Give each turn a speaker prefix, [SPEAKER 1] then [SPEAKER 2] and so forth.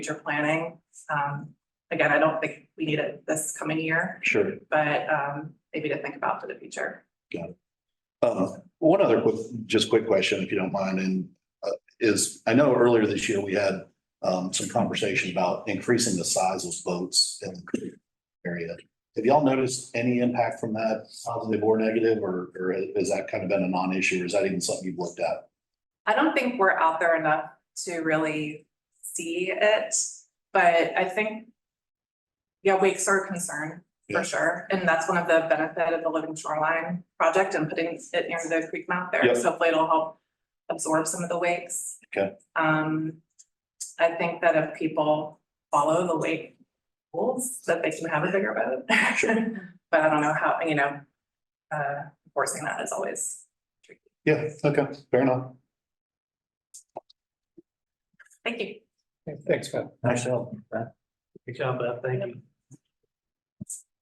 [SPEAKER 1] future planning. Um, again, I don't think we need it this coming year,
[SPEAKER 2] Sure.
[SPEAKER 1] but, um, maybe to think about for the future.
[SPEAKER 2] Um, one other quick, just quick question, if you don't mind, and uh, is, I know earlier this year we had um, some conversation about increasing the size of boats in the creek area. Have y'all noticed any impact from that, positive or negative, or, or has that kind of been a non-issue? or Is that even something you've looked at?
[SPEAKER 1] I don't think we're out there enough to really see it, but I think. Yeah, wakes are a concern
[SPEAKER 2] Yeah.
[SPEAKER 1] for sure, and that's one of the benefit of the Living Shoreline project and putting it near the creek mouth there,
[SPEAKER 2] Yep.
[SPEAKER 1] so hopefully it'll help absorb some of the wakes.
[SPEAKER 2] Okay.
[SPEAKER 1] Um, I think that if people follow the wake rules, that they can have a bigger boat. But I don't know how, you know, uh, forcing that is always,
[SPEAKER 2] Yeah, okay, fair enough.
[SPEAKER 1] thank you.
[SPEAKER 3] Thanks, Beth.
[SPEAKER 4] Nice help, Beth.
[SPEAKER 3] Good job, Beth. Thank you.